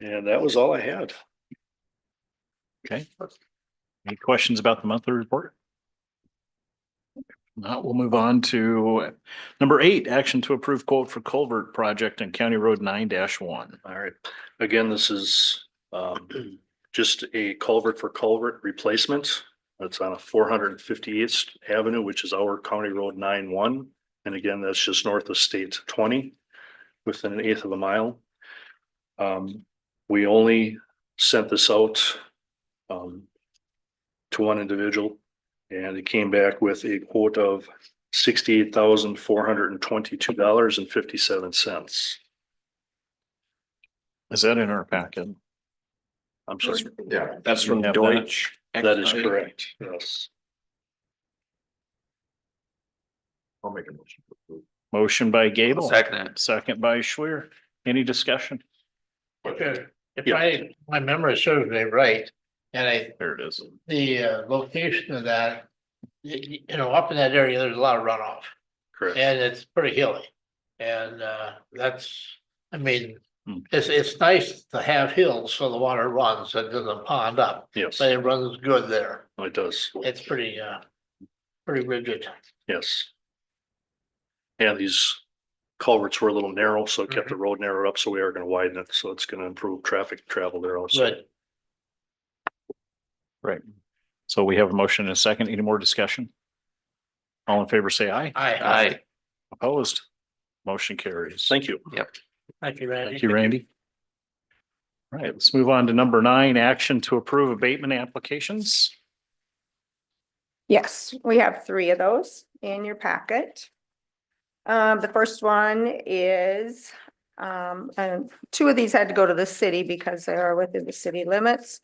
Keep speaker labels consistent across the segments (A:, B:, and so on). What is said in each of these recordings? A: And that was all I had.
B: Okay. Any questions about the monthly report? If Not, we'll move on to number eight, action to approve quote for culvert project on County Road nine one.
A: All right. Again, this is um just a culvert for culvert replacement. That's on a four hundred and fifty eighth Avenue, which is our County Road nine one. And again, that's just north of State twenty, within an eighth of a mile. Um, we only sent this out um to one individual. And it came back with a quote of sixty eight thousand four hundred and twenty two dollars and fifty seven cents.
B: Is that in our packet?
A: I'm sorry.
C: Yeah, that's
B: You
C: from
B: have that?
C: Deutsch.
A: That is correct, yes.
C: I'll make a motion. to approve.
B: Motion by Gable,
D: Second it.
B: second by Schwer. Any discussion?
E: Sure. If
A: Yeah.
E: I, my memory serves me right, and I,
B: There it is.
E: the uh, location of that, y- y- you know, up in that area, there's a lot of runoff
A: Correct.
E: and it's pretty hilly. And uh, that's, I mean,
B: Hmm.
E: it's, it's nice to have hills so the water runs and doesn't pond up,
A: Yes, oh,
E: but it runs good there.
A: it does.
E: It's pretty, uh, pretty rigid.
A: Yes. And these culverts were a little narrow, so it kept
E: Mm-hmm.
A: the road narrow up, so we are gonna widen it, so it's gonna improve traffic travel there also.
E: Good.
B: So we have a motion and a second. Any more discussion? All in favor, say aye.
E: I,
D: Aye.
B: Opposed? Motion carries.
A: Thank you.
E: thank you, Randy.
B: Thank you, Randy. All right, let's move on to number nine, action to approve abatement applications.
F: Yes, we have three of those in your packet. Um, the first one is, um, and two of these had to go to the city because they are within the city limits.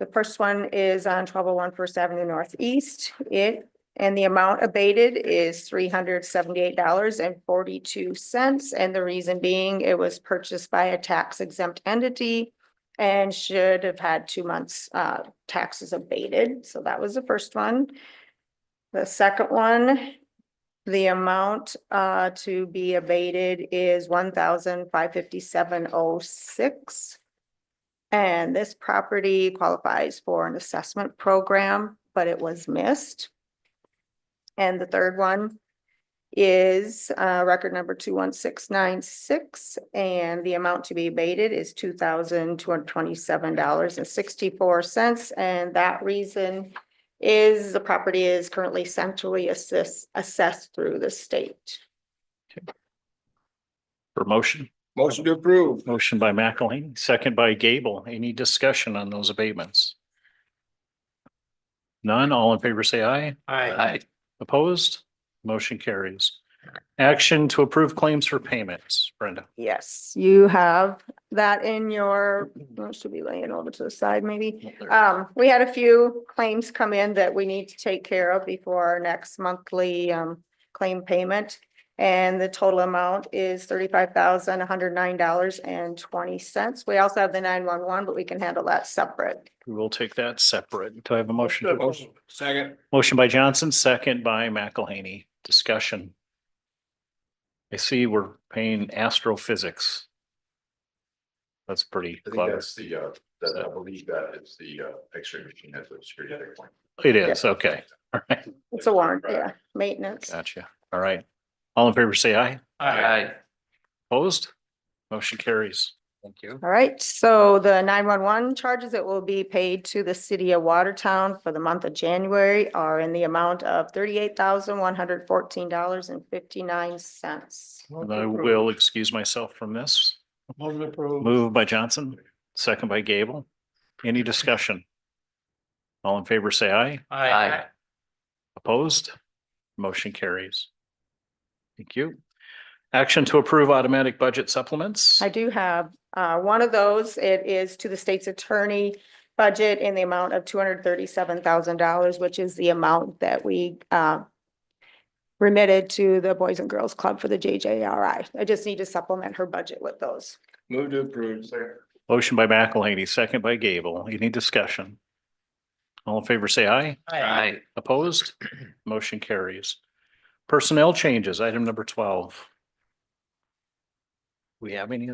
F: The first one is on twelve oh one First Avenue Northeast. It, and the amount abated is three hundred seventy-eight dollars and forty-two cents. And the reason being, it was purchased by a tax exempt entity and should have had two months, uh, taxes abated, so that was the first one. The second one, the amount uh to be abated is one thousand five fifty-seven oh six. And this property qualifies for an assessment program, but it was missed. And the third one is uh record number two one six nine six, and the amount to be abated is two thousand two hundred twenty-seven dollars and sixty-four cents, and that reason is the property is currently centrally assess assessed through the state.
B: For motion,
C: Motion to approve.
B: motion by McElhaney, second by Gable. Any discussion on those abatements? None, all in favor say aye.
E: Aye.
D: Aye.
B: Opposed? Motion carries. Action to approve claims for payments. Brenda,
F: Yes, you have that in your, well, should be laying over to the side maybe. Um, we had a few claims come in that we need to take care of before our next monthly um claim payment. And the total amount is thirty-five thousand, one hundred nine dollars and twenty cents. We also have the nine-one-one, but we can handle that separate.
B: we will take that separate. Do I have a motion? to-
C: Motion, second.
B: Motion by Johnson, second by McElhaney. Discussion. I see we're paying astrophysics. That's pretty
C: I think
B: clever.
C: that's the, uh, that, I believe that is the, uh, X-ray machine, that's a security checkpoint.
B: It is, okay. All right,
F: It's a warrant, yeah, maintenance.
B: gotcha. All right. All in favor, say aye.
D: Aye.
B: Opposed? Motion carries.
D: Thank you.
F: All right, so the nine-one-one charges that will be paid to the city of Watertown for the month of January are in the amount of thirty-eight thousand, one hundred fourteen dollars and fifty-nine cents.
B: And I will excuse myself from this.
E: Motion approved.
B: Moved by Johnson, second by Gable. Any discussion? All in favor, say aye.
E: Aye.
B: Opposed? Motion carries. Thank you. Action to approve automatic budget supplements.
F: I do have uh one of those. It is to the state's attorney budget in the amount of two hundred thirty-seven thousand dollars, which is the amount that we uh remitted to the Boys and Girls Club for the JJRI. I just need to supplement her budget with those.
C: Move to approve. Second.
B: Motion by McElhaney, second by Gable. Any discussion? All in favor, say aye.
E: Aye.
D: Aye.
B: Opposed? Motion carries. Personnel changes, item number twelve. We have any